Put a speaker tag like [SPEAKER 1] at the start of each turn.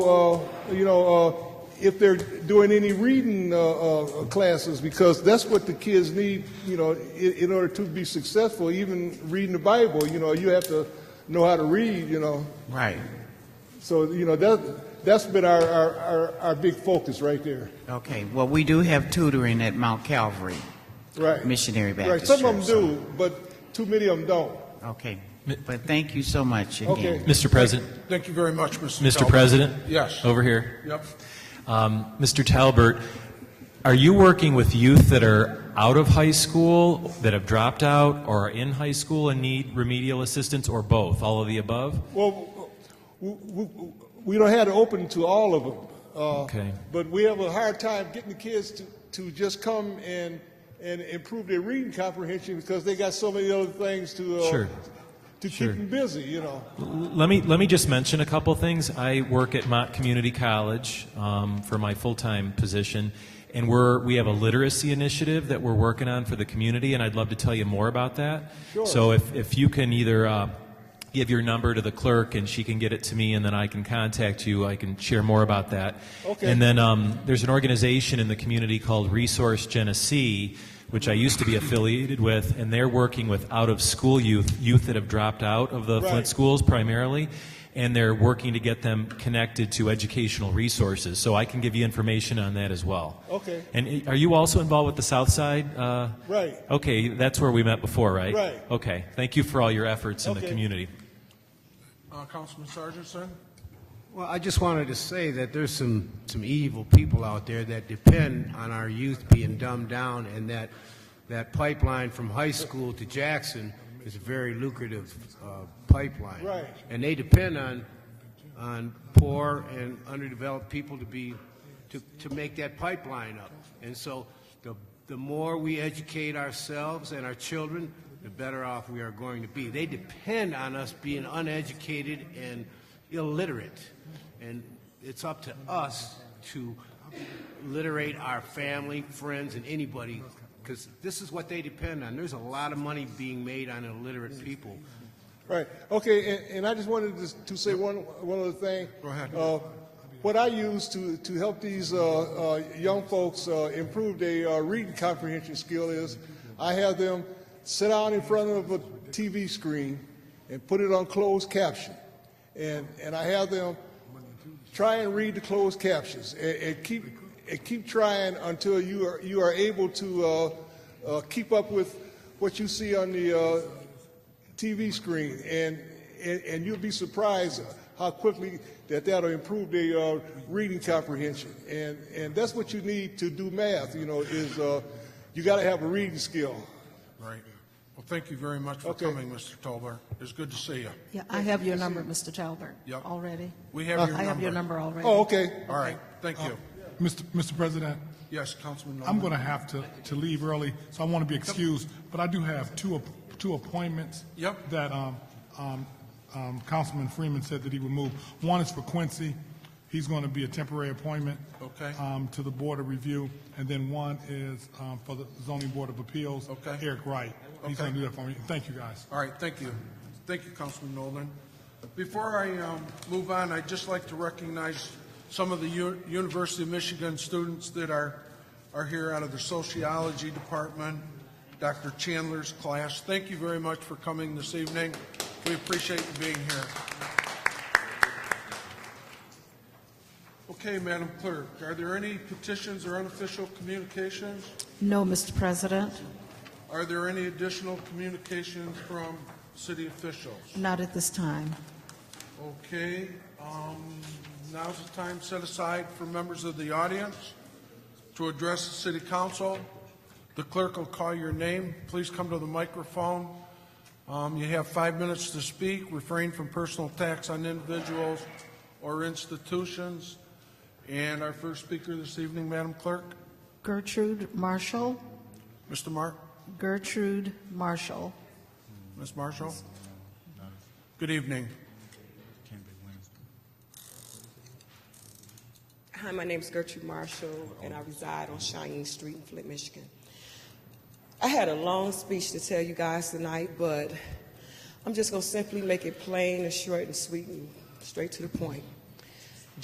[SPEAKER 1] uh, you know, uh, if they're doing any reading uh, uh, classes, because that's what the kids need, you know, in, in order to be successful, even reading the Bible, you know, you have to know how to read, you know.
[SPEAKER 2] Right.
[SPEAKER 1] So, you know, that, that's been our, our, our, our big focus right there.
[SPEAKER 2] Okay. Well, we do have tutoring at Mount Calvary.
[SPEAKER 1] Right.
[SPEAKER 2] Missionary
[SPEAKER 1] Right.
[SPEAKER 2] Baptist
[SPEAKER 1] Some of them
[SPEAKER 2] Church,
[SPEAKER 1] do, but too many of them don't.
[SPEAKER 2] Okay. But thank you so much again.
[SPEAKER 1] Okay.
[SPEAKER 3] Mr. President,
[SPEAKER 4] Thank you very much, Mr.
[SPEAKER 3] Mr.
[SPEAKER 4] Talbot.
[SPEAKER 3] President?
[SPEAKER 4] Yes.
[SPEAKER 3] Over here.
[SPEAKER 4] Yep.
[SPEAKER 3] Um, Mr. Talbert, are you working with youth that are out of high school, that have dropped out, or are in high school and need remedial assistance, or both? All of the above?
[SPEAKER 1] Well, we, we, we don't have it open to all of them. Uh,
[SPEAKER 3] Okay.
[SPEAKER 1] But we have a hard time getting the kids to, to just come and, and improve their reading comprehension because they got so many other things to, uh,
[SPEAKER 3] Sure.
[SPEAKER 1] to
[SPEAKER 3] Sure.
[SPEAKER 1] keep them busy, you know.
[SPEAKER 3] Let me let me just mention a couple things. I work at Mott Community College um, for my full time position, and we're we have a literacy initiative that we're working on for the community, and I'd love to tell you more about that.
[SPEAKER 1] Sure.
[SPEAKER 3] So if if you can either. Uh, Give your number to the clerk, and she can get it to me, and then I can contact you. I can share more about that.
[SPEAKER 1] Okay.
[SPEAKER 3] And then um, there's an organization in the community called Resource Genesee, which I used to be affiliated with, and they're working with out-of-school youth, youth that have dropped out of the
[SPEAKER 1] Right.
[SPEAKER 3] Flint schools primarily, and they're working to get them connected to educational resources. So I can give you information on that as well.
[SPEAKER 1] Okay.
[SPEAKER 3] And i- are you also involved with the South Side? Uh,
[SPEAKER 1] Right.
[SPEAKER 3] Okay, that's where we met before, right?
[SPEAKER 1] Right.
[SPEAKER 3] Okay. Thank you for all your efforts in
[SPEAKER 1] Okay.
[SPEAKER 3] the community.
[SPEAKER 4] Uh, Councilman Sargentson?
[SPEAKER 5] Well, I just wanted to say that there's some, some evil people out there that depend on our youth being dumbed down, and that, that pipeline from high school to Jackson is a very lucrative uh, pipeline.
[SPEAKER 1] Right.
[SPEAKER 5] And they depend on, on poor and underdeveloped people to be, to, to make that pipeline up. And so the, the more we educate ourselves and our children, the better off we are going to be. They depend on us being uneducated and illiterate. And it's up to us to literate our family, friends, and anybody, because this is what they depend on. There's a lot of money being made on illiterate people.
[SPEAKER 1] Right. Okay. And, and I just wanted to, to say one one other thing. Go
[SPEAKER 4] ahead.
[SPEAKER 1] Uh, what I use to to help these uh, uh, young folks uh, improve their uh, reading comprehension skill is I have them sit down in front of a TV screen and put it on closed caption, and and I have them try and read the closed captions and, and keep and keep trying until you are you are able to uh, uh, keep up with what you see on the uh, TV screen, and, and, and you'll be surprised how quickly that that'll improve their uh, reading comprehension. And, and that's what you need to do math, you know, is uh, you got to have a reading skill.
[SPEAKER 4] Right. Well, thank you very much for
[SPEAKER 1] Okay.
[SPEAKER 4] coming, Mr. Tolbar. It's good to see you.
[SPEAKER 6] Yeah, I have your number, Mr. Talbert,
[SPEAKER 4] Yep.
[SPEAKER 6] already.
[SPEAKER 4] We have your
[SPEAKER 6] Uh, I have your
[SPEAKER 4] number.
[SPEAKER 6] number already.
[SPEAKER 1] Oh, okay.
[SPEAKER 4] All right, thank you.
[SPEAKER 7] Mr. Mr. President,
[SPEAKER 4] Yes, Councilman
[SPEAKER 7] I'm
[SPEAKER 4] Nolan?
[SPEAKER 7] going to have to, to leave early, so I want to be excused, but I do have two, app- two appointments.
[SPEAKER 4] Yep.
[SPEAKER 7] That, um, um, um, Councilman Freeman said that he would move. One is for Quincy. He's going to be a temporary appointment.
[SPEAKER 4] Okay.
[SPEAKER 7] Um, to the Board of Review, and then one is, um, for the Zoning Board of Appeals.
[SPEAKER 4] Okay.
[SPEAKER 7] Eric Wright. He's
[SPEAKER 4] Okay.
[SPEAKER 7] going to do that for me. Thank you, guys.
[SPEAKER 4] All right, thank you. Thank you, Councilman Nolan. Before I um, move on, I'd just like to recognize some of the U- University of Michigan students that are, are here out of the sociology department, Dr. Chandler's class. Thank you very much for coming this evening. We appreciate you being here. Okay, Madam Clerk, are there any petitions or unofficial communications?
[SPEAKER 6] No, Mr. President,
[SPEAKER 4] Are there any additional communications from city officials?
[SPEAKER 6] not at this time.
[SPEAKER 4] Okay, um, now's the time set aside for members of the audience to address the city council. The clerk will call your name. Please come to the microphone. Um, you have five minutes to speak. Refrain from personal attacks on individuals or institutions. And our first speaker this evening, Madam Clerk,
[SPEAKER 6] Gertrude Marshall,
[SPEAKER 4] Mr. Mark,
[SPEAKER 6] Gertrude Marshall.
[SPEAKER 4] Ms. Marshall. Good evening.
[SPEAKER 8] Hi, my name is Gertrude Marshall, and I reside on Cheyenne Street in Flint, Michigan. I had a long speech to tell you guys tonight, but I'm just going to simply make it plain and short and sweet and straight to the point.